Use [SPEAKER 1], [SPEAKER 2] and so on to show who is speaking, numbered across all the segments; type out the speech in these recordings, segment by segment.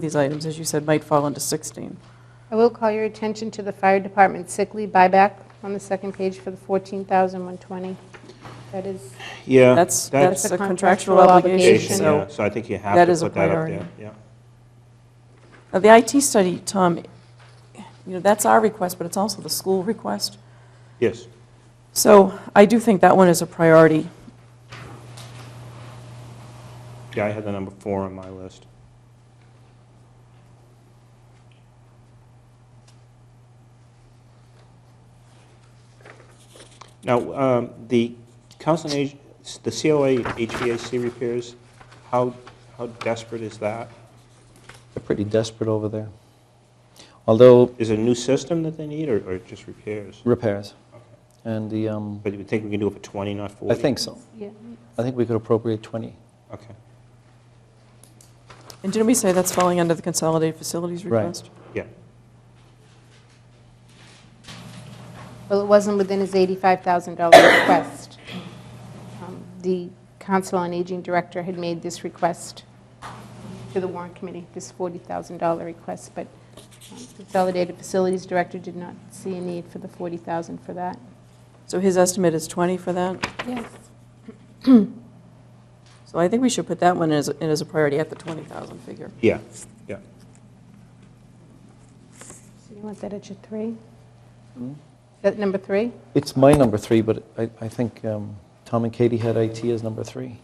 [SPEAKER 1] these items, as you said, might fall into 16.
[SPEAKER 2] I will call your attention to the fire department sick leave buyback on the second page for the 14120 That is,
[SPEAKER 3] Yeah.
[SPEAKER 1] That's,
[SPEAKER 2] That's
[SPEAKER 1] that's
[SPEAKER 2] a
[SPEAKER 1] a contractual
[SPEAKER 2] contractual
[SPEAKER 1] obligation,
[SPEAKER 2] obligation,
[SPEAKER 3] Yeah,
[SPEAKER 1] so.
[SPEAKER 3] so I think you have
[SPEAKER 1] That
[SPEAKER 3] to
[SPEAKER 1] is a
[SPEAKER 3] put that up
[SPEAKER 1] priority.
[SPEAKER 3] there. Yeah.
[SPEAKER 1] Now, the IT study, Tom, you know, that's our request, but it's also the school request.
[SPEAKER 3] Yes.
[SPEAKER 1] So I do think that one is a priority.
[SPEAKER 3] Yeah, I had the number four on my list. Now, um, the council, on Ag- the COA HVAC repairs, how, how desperate is that?
[SPEAKER 4] They're pretty desperate over there. Although
[SPEAKER 3] Is it a new system that they need, or or just repairs?
[SPEAKER 4] repairs. And the, um,
[SPEAKER 3] But you would think we can do it for 20, not 40?
[SPEAKER 4] I think so.
[SPEAKER 2] yeah,
[SPEAKER 4] I think we could appropriate 20.
[SPEAKER 3] Okay,
[SPEAKER 1] And didn't we say that's falling under the consolidated facilities
[SPEAKER 4] Right.
[SPEAKER 1] request?
[SPEAKER 3] yeah.
[SPEAKER 2] well, it wasn't within his $85,000 request. Um, The Council on Aging Director had made this request to the warrant committee, this $40,000 request, but um, Consolidated Facilities Director did not see a need for the $40,000 for that.
[SPEAKER 1] So his estimate is 20 for that?
[SPEAKER 2] Yes.
[SPEAKER 1] So I think we should put that one as, in as a priority at the 20,000 figure.
[SPEAKER 3] Yeah, yeah.
[SPEAKER 2] So you want that at your three? That number three?
[SPEAKER 4] It's my number three, but I, I think um, Tom and Katie had IT as number three.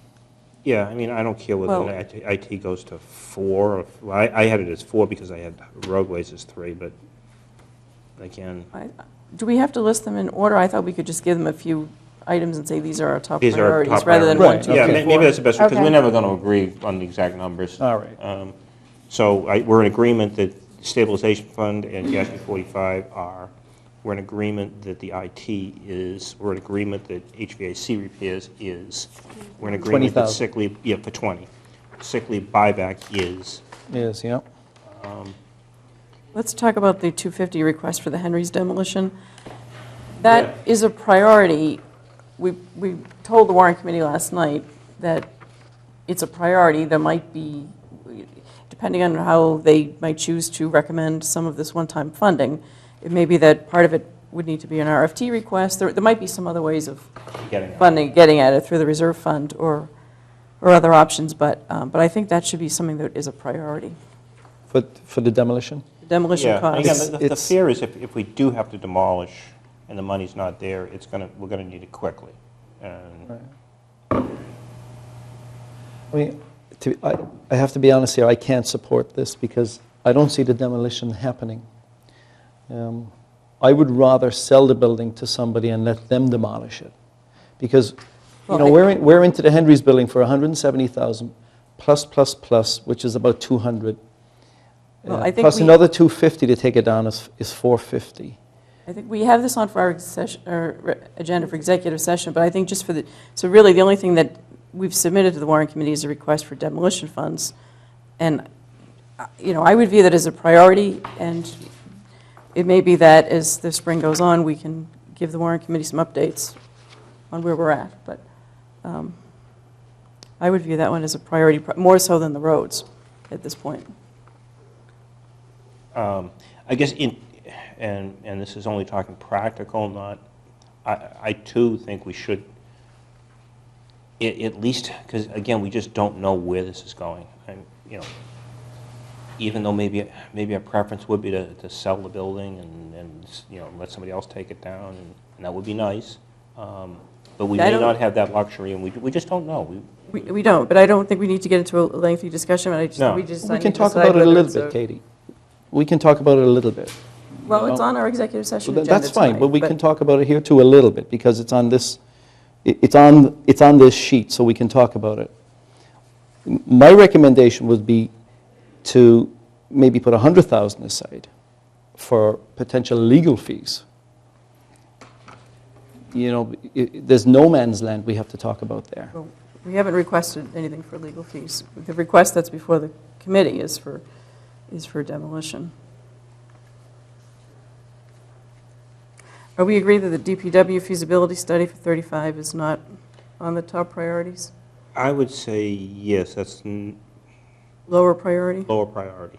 [SPEAKER 3] Yeah, I mean, I don't care whether
[SPEAKER 1] Well-
[SPEAKER 3] IT IT goes to four, or, well, I I had it as four because I had roadways as three, but again,
[SPEAKER 1] I- Do we have to list them in order? I thought we could just give them a few items and say, these are our top
[SPEAKER 3] these are our
[SPEAKER 1] priorities,
[SPEAKER 3] top
[SPEAKER 1] rather than one,
[SPEAKER 3] priorities.
[SPEAKER 4] Right,
[SPEAKER 1] two,
[SPEAKER 3] Yeah,
[SPEAKER 4] okay.
[SPEAKER 1] three,
[SPEAKER 3] may- maybe
[SPEAKER 1] four.
[SPEAKER 3] that's the best, because
[SPEAKER 2] Okay.
[SPEAKER 3] we're never going to agree on the exact numbers.
[SPEAKER 4] All right.
[SPEAKER 3] Um, So I- we're in agreement that stabilization fund and GASB 45 are, we're in agreement that the IT is, we're in agreement that HVAC repairs is, we're in agreement that
[SPEAKER 4] 20,000.
[SPEAKER 3] sick leave, yeah, for 20. Sick leave buyback is,
[SPEAKER 4] Yes, yeah.
[SPEAKER 1] Let's talk about the 250 request for the Henry's demolition. That is a priority. We, we told the warrant committee last night that it's a priority. There might be, depending on how they might choose to recommend some of this one-time funding, it may be that part of it would need to be an RFT request. There, there might be some other ways of
[SPEAKER 3] getting it.
[SPEAKER 1] funding, getting at it through the reserve fund or, or other options, but, um, but I think that should be something that is a priority.
[SPEAKER 4] For, for the demolition?
[SPEAKER 1] Demolition
[SPEAKER 3] Yeah, and
[SPEAKER 1] costs.
[SPEAKER 3] Again, the- the
[SPEAKER 4] It's-
[SPEAKER 3] fear is if, if we do have to demolish and the money's not there, it's going to, we're going to need it quickly. And
[SPEAKER 4] I mean, to, I, I have to be honest here, I can't support this because I don't see the demolition happening. Um, I would rather sell the building to somebody and let them demolish it. Because, you
[SPEAKER 1] Well,
[SPEAKER 4] know,
[SPEAKER 1] I-
[SPEAKER 4] we're, in- we're into the Henry's building for 170,000 plus, plus, plus, which is about 200.
[SPEAKER 1] Well,
[SPEAKER 4] Uh,
[SPEAKER 1] I think
[SPEAKER 4] plus
[SPEAKER 1] we-
[SPEAKER 4] another 250 to take it down is, is 450.
[SPEAKER 1] I think we have this on for our session, or re- agenda for executive session, but I think just for the, so really, the only thing that we've submitted to the warrant committee is a request for demolition funds. And, uh, you know, I would view that as a priority, and it may be that as the spring goes on, we can give the warrant committee some updates on where we're at, but um, I would view that one as a priority, pro- more so than the roads at this point.
[SPEAKER 3] um, I guess in, and, and this is only talking practical, not, I, I too think we should, a- at least, because again, we just don't know where this is going. And, you know, even though maybe, maybe our preference would be to, to sell the building and, and, you know, let somebody else take it down, and and that would be nice. Um, But we
[SPEAKER 1] I
[SPEAKER 3] may
[SPEAKER 1] don't-
[SPEAKER 3] not have that luxury, and we, we just don't know. We-
[SPEAKER 1] We- We don't, but I don't think we need to get into a lengthy discussion, but I just,
[SPEAKER 3] No.
[SPEAKER 1] we just. I
[SPEAKER 4] We
[SPEAKER 1] need
[SPEAKER 4] can
[SPEAKER 1] to
[SPEAKER 4] talk
[SPEAKER 1] decide
[SPEAKER 4] about it a
[SPEAKER 1] whether
[SPEAKER 4] little
[SPEAKER 1] it's
[SPEAKER 4] bit, Katie. We can talk about it a little bit.
[SPEAKER 1] Well, it's
[SPEAKER 4] No.
[SPEAKER 1] on our executive session
[SPEAKER 4] Well,
[SPEAKER 1] agenda
[SPEAKER 4] tha- That's fine,
[SPEAKER 1] tonight,
[SPEAKER 4] but we can talk about it here too a little bit, because it's on this, i- it's on, it's on this sheet, so we can talk about it. M- My recommendation would be to maybe put 100,000 aside for potential legal fees. You know, i- i- there's no man's land we have to talk about there.
[SPEAKER 1] Well, We haven't requested anything for legal fees. The request that's before the committee is for, is for demolition. Are we agreed that the DPW feasibility study for 35 is not on the top priorities,
[SPEAKER 3] I would say, yes, that's n-
[SPEAKER 1] lower priority?
[SPEAKER 3] lower priority.